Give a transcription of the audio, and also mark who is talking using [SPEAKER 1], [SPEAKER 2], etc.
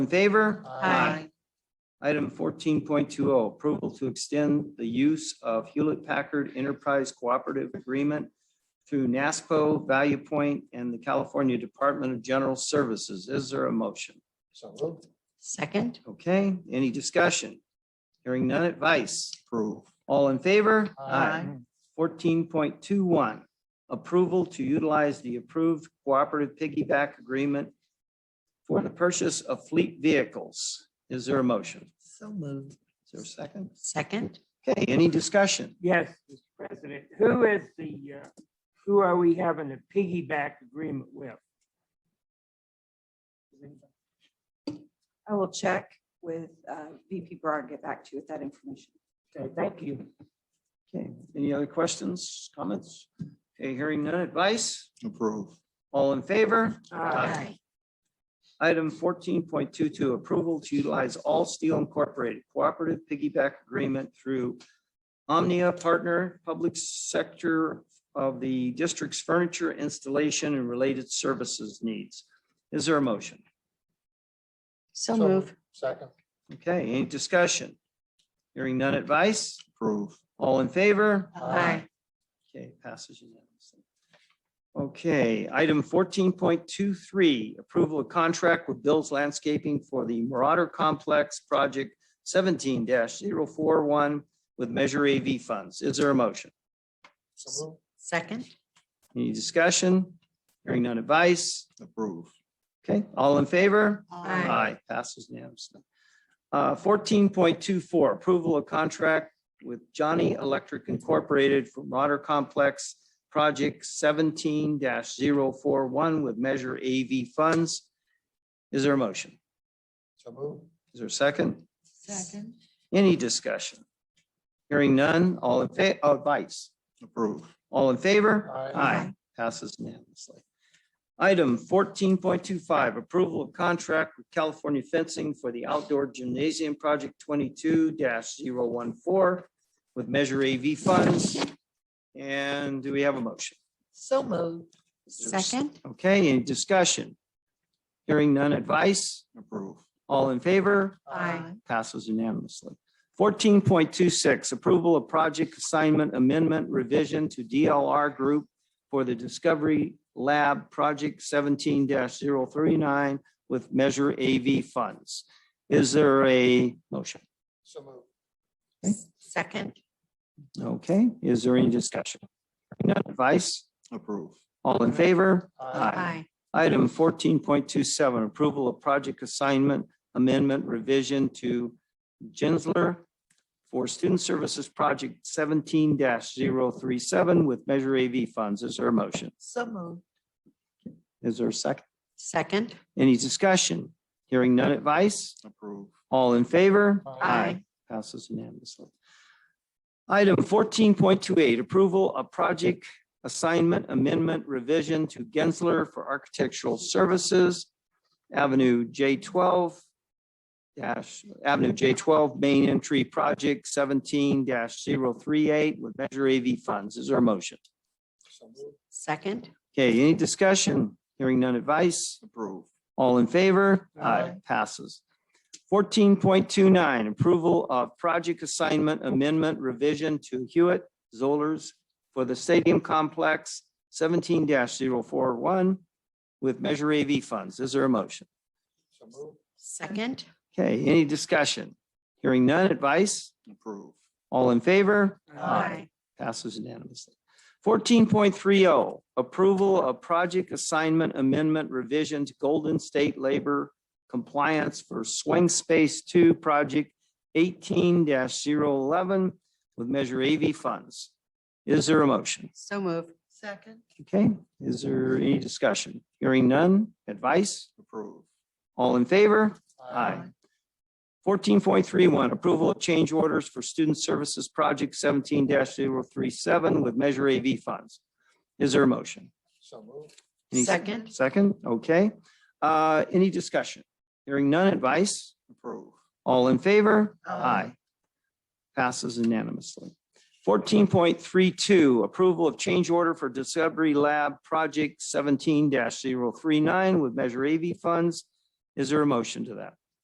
[SPEAKER 1] in favor?
[SPEAKER 2] Aye.
[SPEAKER 1] Item fourteen point two oh, approval to extend the use of Hewlett Packard Enterprise Cooperative Agreement through NASPO, Value Point, and the California Department of General Services. Is there a motion?
[SPEAKER 2] So moved.
[SPEAKER 3] Second.
[SPEAKER 1] Okay, any discussion? Hearing none advice.
[SPEAKER 2] Approve.
[SPEAKER 1] All in favor?
[SPEAKER 2] Aye.
[SPEAKER 4] Mm.
[SPEAKER 1] Fourteen point two one, approval to utilize the approved cooperative piggyback agreement for the purchase of fleet vehicles. Is there a motion?
[SPEAKER 3] So moved.
[SPEAKER 1] Is there a second?
[SPEAKER 3] Second.
[SPEAKER 1] Okay, any discussion?
[SPEAKER 4] Yes, Mr. President, who is the, uh, who are we having a piggyback agreement with?
[SPEAKER 5] I will check with uh, VP Brar and get back to you with that information.
[SPEAKER 4] Okay, thank you.
[SPEAKER 1] Okay, any other questions, comments? Okay, hearing none advice.
[SPEAKER 2] Approve.
[SPEAKER 1] All in favor?
[SPEAKER 4] Uh,
[SPEAKER 1] Item fourteen point two two, approval to utilize All Steel Incorporated Cooperative Piggyback Agreement through Omnia Partner Public Sector of the District's Furniture Installation and Related Services Needs. Is there a motion?
[SPEAKER 3] So move.
[SPEAKER 2] Second.
[SPEAKER 1] Okay, any discussion? Hearing none advice?
[SPEAKER 2] Approve.
[SPEAKER 1] All in favor?
[SPEAKER 2] Aye.
[SPEAKER 1] Okay, passes unanimously. Okay, item fourteen point two three, approval of contract with Bill's Landscaping for the Marauder Complex Project seventeen 41 with Measure AV funds. Is there a motion?
[SPEAKER 2] So moved.
[SPEAKER 3] Second.
[SPEAKER 1] Any discussion? Hearing none advice?
[SPEAKER 2] Approve.
[SPEAKER 1] Okay, all in favor?
[SPEAKER 3] Aye.
[SPEAKER 1] Aye, passes unanimously. Uh, Fourteen point two four, approval of contract with Johnny Electric Incorporated for Marauder Complex Project seventeen 41 with Measure AV funds. Is there a motion?
[SPEAKER 2] So moved.
[SPEAKER 1] Is there a second?
[SPEAKER 3] Second.
[SPEAKER 1] Any discussion? Hearing none, all in fa, advice?
[SPEAKER 2] Approve.
[SPEAKER 1] All in favor?
[SPEAKER 2] Aye.
[SPEAKER 1] Aye. Passes unanimously. Item fourteen point two five, approval of contract with California Fencing for the Outdoor Gymnasium Project twenty-two 14 with Measure AV funds. And do we have a motion?
[SPEAKER 3] So moved. Second.
[SPEAKER 1] Okay, any discussion? Hearing none advice?
[SPEAKER 2] Approve.
[SPEAKER 1] All in favor?
[SPEAKER 3] Aye.
[SPEAKER 1] Passes unanimously. Fourteen point two six, approval of project assignment amendment revision to DLR Group for the Discovery Lab Project seventeen 39 with Measure AV funds. Is there a motion?
[SPEAKER 2] So moved.
[SPEAKER 3] Second.
[SPEAKER 1] Okay, is there any discussion? None advice?
[SPEAKER 2] Approve.
[SPEAKER 1] All in favor?
[SPEAKER 3] Aye.
[SPEAKER 1] Item fourteen point two seven, approval of project assignment amendment revision to Gensler for Student Services Project seventeen 37 with Measure AV funds. Is there a motion?
[SPEAKER 3] So moved.
[SPEAKER 1] Is there a second?
[SPEAKER 3] Second.
[SPEAKER 1] Any discussion? Hearing none advice?
[SPEAKER 2] Approve.
[SPEAKER 1] All in favor?
[SPEAKER 2] Aye.
[SPEAKER 1] Passes unanimously. Item fourteen point two eight, approval of project assignment amendment revision to Gensler for Architectural Services, Avenue J twelve dash, Avenue J twelve, main entry project seventeen 38 with Measure AV funds. Is there a motion?
[SPEAKER 2] So moved.
[SPEAKER 3] Second.
[SPEAKER 1] Okay, any discussion? Hearing none advice?
[SPEAKER 2] Approve.
[SPEAKER 1] All in favor?
[SPEAKER 4] Aye.
[SPEAKER 1] Passes. Fourteen point two nine, approval of project assignment amendment revision to Hewitt Zollers for the stadium complex seventeen 41 with Measure AV funds. Is there a motion?
[SPEAKER 2] So moved.
[SPEAKER 3] Second.
[SPEAKER 1] Okay, any discussion? Hearing none advice?
[SPEAKER 2] Approve.
[SPEAKER 1] All in favor?
[SPEAKER 3] Aye.
[SPEAKER 1] Passes unanimously. Fourteen point three oh, approval of project assignment amendment revision to Golden State Labor Compliance for Swing Space Two Project eighteen 11 with Measure AV funds. Is there a motion?
[SPEAKER 3] So moved. Second.
[SPEAKER 1] Okay, is there any discussion? Hearing none, advice?
[SPEAKER 2] Approve.
[SPEAKER 1] All in favor? Aye. Fourteen point three one, approval of change orders for Student Services Project seventeen 37 with Measure AV funds. Is there a motion?
[SPEAKER 2] So moved.
[SPEAKER 1] Any-
[SPEAKER 3] Second.
[SPEAKER 1] Second, okay. Uh, any discussion? Hearing none advice?
[SPEAKER 2] Approve.
[SPEAKER 1] All in favor?
[SPEAKER 3] Aye.
[SPEAKER 1] Passes unanimously. Fourteen point three two, approval of change order for Discovery Lab Project seventeen 39 with Measure AV funds. Is there a motion to that?